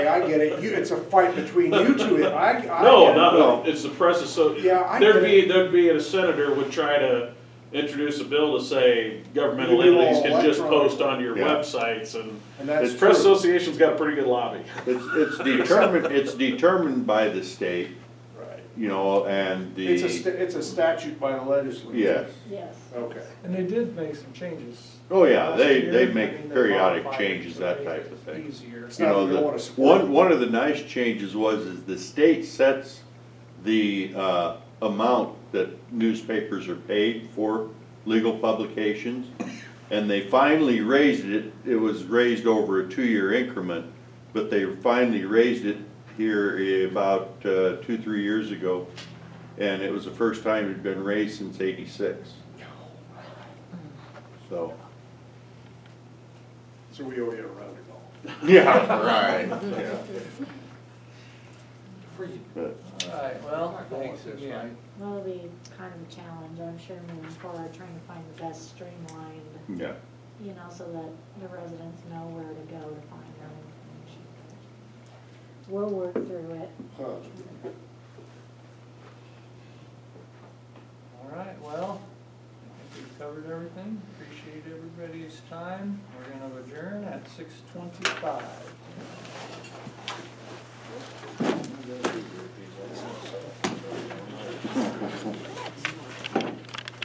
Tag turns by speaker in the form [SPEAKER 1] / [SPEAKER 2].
[SPEAKER 1] I get it, you, it's a fight between you two, I, I get it.
[SPEAKER 2] No, no,
[SPEAKER 3] No.
[SPEAKER 2] it's the press, so,
[SPEAKER 1] Yeah, I
[SPEAKER 2] there'd
[SPEAKER 1] get
[SPEAKER 2] be, there'd be, a senator would try to introduce a bill to say governmental
[SPEAKER 1] You do all
[SPEAKER 2] entities can just
[SPEAKER 1] electronic.
[SPEAKER 2] post on your
[SPEAKER 3] Yeah.
[SPEAKER 2] websites and.
[SPEAKER 1] And that's
[SPEAKER 2] The Press
[SPEAKER 1] true.
[SPEAKER 2] Association's got a pretty good lobby.
[SPEAKER 3] It's, it's determined, it's determined by the state,
[SPEAKER 1] Right.
[SPEAKER 3] you know, and the.
[SPEAKER 1] It's a, sta- it's a statute by the legislature.
[SPEAKER 3] Yes,
[SPEAKER 4] Yes.
[SPEAKER 1] Okay.
[SPEAKER 5] And they did make some changes.
[SPEAKER 3] oh yeah,
[SPEAKER 5] last
[SPEAKER 3] they,
[SPEAKER 5] year.
[SPEAKER 3] they
[SPEAKER 5] I mean,
[SPEAKER 3] make
[SPEAKER 5] they
[SPEAKER 3] periodic
[SPEAKER 5] modified it
[SPEAKER 3] changes,
[SPEAKER 5] to
[SPEAKER 3] that
[SPEAKER 5] make
[SPEAKER 3] type
[SPEAKER 5] it
[SPEAKER 3] of thing.
[SPEAKER 5] Easier.
[SPEAKER 1] It's
[SPEAKER 3] You
[SPEAKER 1] not
[SPEAKER 3] know,
[SPEAKER 1] that we
[SPEAKER 3] the,
[SPEAKER 1] don't wanna support
[SPEAKER 3] one, one of the nice changes was is the state sets the, uh, amount that newspapers are paid for legal publications. And they finally raised it, it was raised over a two-year increment, but they finally raised it here about, uh, two, three years ago. And it was the first time it'd been raised since eighty-six. So,
[SPEAKER 1] So we owe you a round of golf.
[SPEAKER 3] yeah, right, yeah.
[SPEAKER 5] All right, well, thanks, yeah.
[SPEAKER 4] That'll be kind of a challenge, I'm sure, moving forward, trying to find the best streamlined,
[SPEAKER 3] Yeah.
[SPEAKER 4] you know, so that the residents know where to go to find their information. We'll work through it.
[SPEAKER 1] Huh.
[SPEAKER 5] All right, well, I think we've covered everything. Appreciate everybody's time. We're gonna adjourn at six twenty-five.